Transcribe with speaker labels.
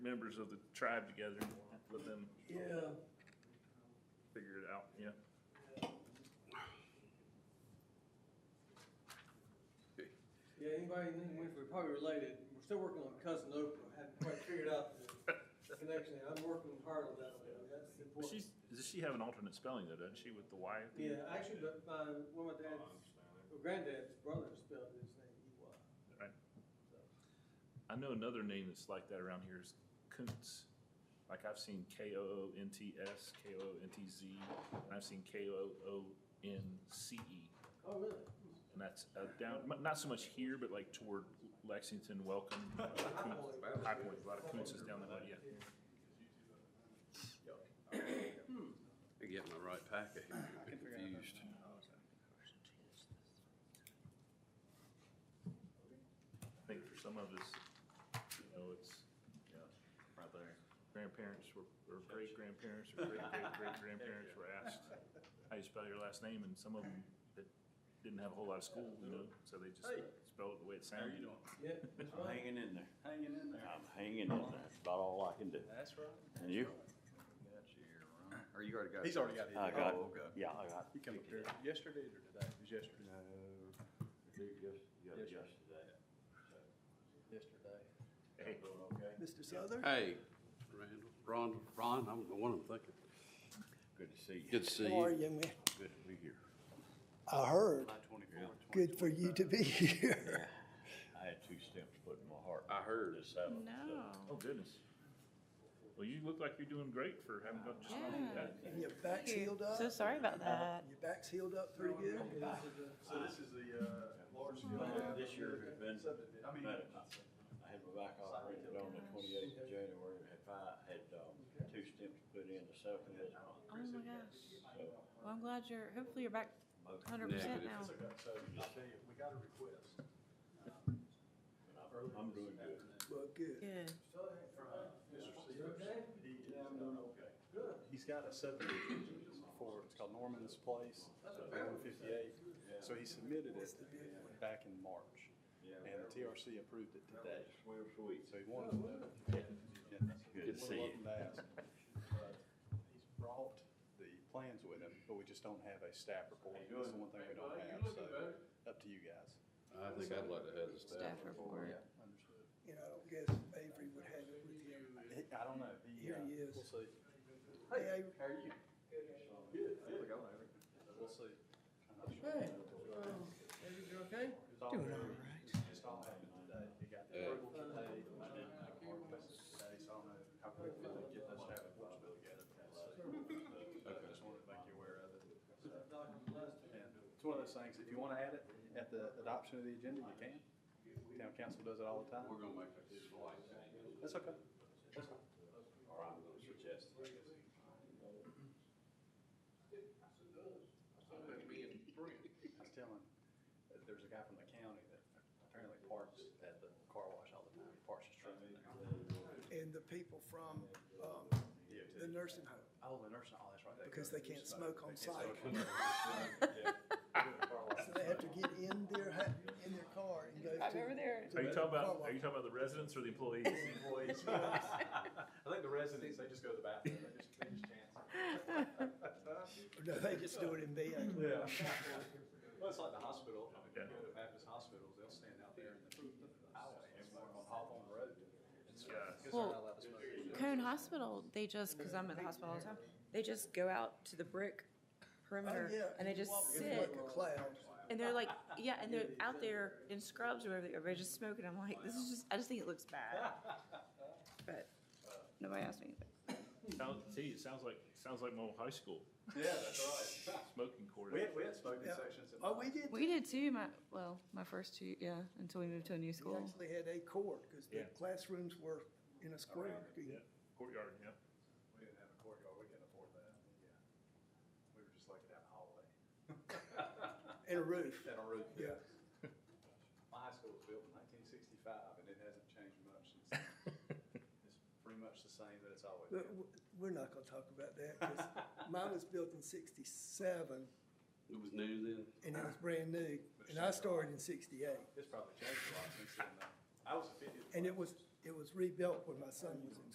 Speaker 1: members of the tribe together and let them
Speaker 2: Yeah.
Speaker 1: figure it out, yeah.
Speaker 2: Yeah, anybody in the we're probably related. We're still working on cousin Oprah. Haven't quite figured out the connection. I'm working hard on that one. That's
Speaker 1: But
Speaker 2: important.
Speaker 1: she's, does she have an alternate spelling though, doesn't she, with the Y? at the end?
Speaker 2: Yeah, actually, but my, one of my dad's, well, granddad's brother spelled his name E Y.
Speaker 1: I know another name that's like that around here is Kuntz. Like I've seen K O O N T S, K O O N T Z, and I've seen K O O N C E.
Speaker 2: Oh, really?
Speaker 1: And that's uh, down, m- not so much here, but like toward Lexington, Welcome, uh,
Speaker 2: I
Speaker 1: Kuntz,
Speaker 2: only-
Speaker 1: High Point, a lot of Kuntzes down that way, yeah.
Speaker 3: I get my right packet here, I get confused.
Speaker 1: I think for some of us, you know, it's, you know,
Speaker 4: Right there.
Speaker 1: grandparents were, or great grandparents, or great, great, great grandparents were asked, how you spell your last name, and some of them that didn't have a whole lot of school, you know, so they just
Speaker 4: Hey.
Speaker 1: spelled it the way it
Speaker 4: How
Speaker 1: sounded.
Speaker 4: you doing?
Speaker 2: Yeah, that's
Speaker 4: I'm
Speaker 2: right.
Speaker 4: hanging in there.
Speaker 3: Hanging in
Speaker 4: I'm hanging in there. That's about all I can do.
Speaker 3: That's right.
Speaker 4: And you?
Speaker 3: Got you, Ron. Or you already got.
Speaker 5: He's already got it.
Speaker 4: I got,
Speaker 3: Oh, okay.
Speaker 4: yeah, I got.
Speaker 5: He come up here yesterday or today? It was yesterday.
Speaker 4: No, dude, yes, yeah,
Speaker 5: Yes, sir.
Speaker 4: yesterday.
Speaker 5: Yesterday.
Speaker 1: Hey,
Speaker 5: Mr. Southern?
Speaker 3: Hey, Randall, Ron, Ron, I don't know what I'm thinking.
Speaker 4: Good to see you.
Speaker 3: Good to see
Speaker 6: How are
Speaker 3: you.
Speaker 6: you, man?
Speaker 4: Good to be here.
Speaker 6: I heard.
Speaker 3: twenty-four.
Speaker 6: Good for you to be here.
Speaker 4: I had two stamps put in my heart.
Speaker 3: I heard.
Speaker 4: This happened.
Speaker 1: oh goodness. Well, you look like you're doing great for having got just gone through that.
Speaker 6: And Your back's healed up?
Speaker 7: So sorry about that.
Speaker 6: Your back's healed up pretty good?
Speaker 5: So this is the, uh, large.
Speaker 4: This year has been,
Speaker 5: I mean,
Speaker 4: medical. I had my back operated on the twenty-eighth of January. Had five, had, um, two stamps put in the second this month.
Speaker 7: Oh my gosh.
Speaker 4: So
Speaker 7: Well, I'm glad you're, hopefully you're back
Speaker 4: most
Speaker 7: hundred percent
Speaker 3: Negative.
Speaker 7: now.
Speaker 5: so you see, we got a request.
Speaker 4: I'm I'm doing good.
Speaker 6: Well, good.
Speaker 7: Good.
Speaker 5: You okay? Yeah, I'm doing okay.
Speaker 2: Good.
Speaker 5: He's got a subdivision for, it's called Norman's Place, one fifty-eight. So he submitted it back in March, and the TRC approved it today.
Speaker 4: We're sweet.
Speaker 5: So he wanted to know.
Speaker 4: Good to see you.
Speaker 5: Wanted to ask, but He's brought the plans with him, but we just don't have a staff report. That's the one thing we don't have, so up to you guys.
Speaker 3: I think I'd like to have the
Speaker 7: Staff report.
Speaker 5: Understood.
Speaker 6: You know, I don't guess Avery would have it with you.
Speaker 5: I don't know. He,
Speaker 6: Here
Speaker 5: uh,
Speaker 6: he is.
Speaker 5: We'll see.
Speaker 6: Hey, Avery,
Speaker 5: How are you? Good. Good. We'll see.
Speaker 2: Hey, um, David, you okay?
Speaker 5: Doing all right. Just all happened today. He got the approval today. I didn't have a hard message today, so I don't know how quickly they get this staff report together. uh, I just wanted to make you aware of it. So, and It's one of those things, if you want to add it at the adoption of the agenda, you can. Town council does it all the time.
Speaker 3: We're gonna make a decision like that.
Speaker 5: That's okay. That's fine.
Speaker 4: Or I'm gonna suggest.
Speaker 5: I was telling, uh, there's a guy from the county that apparently parks at the car wash all the time, He parks his truck in there.
Speaker 6: and the people from, um, the nursing home,
Speaker 5: Oh, the nursing, oh, that's right. they-
Speaker 6: because they can't smoke on site. So
Speaker 5: So
Speaker 6: they have to get in their, ha- in their car and go to.
Speaker 7: I'm over there.
Speaker 1: Are you talking about, are you talking about the residents or the employees?
Speaker 5: Employees. I think the residents, they just go to the bathroom, they just, they just chance. it.
Speaker 6: No, they just do it in bed.
Speaker 7: Mm-hmm.
Speaker 5: Yeah. Well, it's like the hospital, I mean,
Speaker 1: Yeah.
Speaker 5: you go to Baptist hospitals, they'll stand out there in the highway, and like on Hawthorne Road. It's-
Speaker 1: Yeah.
Speaker 5: because they're
Speaker 7: Well,
Speaker 5: not allowed to smoke.
Speaker 7: Cone Hospital, they just, because I'm at the hospital all the time, they just go out to the brick perimeter
Speaker 6: Oh, yeah.
Speaker 7: and they just
Speaker 6: It's
Speaker 7: sit.
Speaker 6: like a cloud.
Speaker 7: And they're like, yeah, and they're out there in scrubs or whatever, they are, just smoking. I'm like, this is just, I just think it looks bad. But nobody asked me anything.
Speaker 1: Sounds, see, it sounds like, sounds like my old high school
Speaker 5: Yeah, that's right.
Speaker 1: smoking
Speaker 5: We
Speaker 1: court.
Speaker 5: had, we had smoking
Speaker 6: Yeah.
Speaker 5: sections. in
Speaker 6: Oh, we did,
Speaker 7: We did too, my, well, my first two, yeah, until we moved to a
Speaker 6: we
Speaker 7: new school.
Speaker 6: actually had a court, because the
Speaker 1: Yeah.
Speaker 6: classrooms were in a square.
Speaker 1: Yeah, courtyard, yeah.
Speaker 5: We didn't have a courtyard, we couldn't afford that, yeah. We were just like down the hallway.
Speaker 6: And a roof.
Speaker 5: Down a roof.
Speaker 6: Yeah.
Speaker 5: My high school was built in nineteen sixty-five, and it hasn't changed much since then. It's pretty much the same that it's always
Speaker 6: But
Speaker 5: been.
Speaker 6: w- We're not gonna talk about that, 'cause mine was built in sixty-seven,
Speaker 3: It was new then?
Speaker 6: and it was brand new, and I started in sixty-eight.
Speaker 5: It's probably changed a lot since then, though. I was a fifty.
Speaker 6: And it was, it was rebuilt when my son was in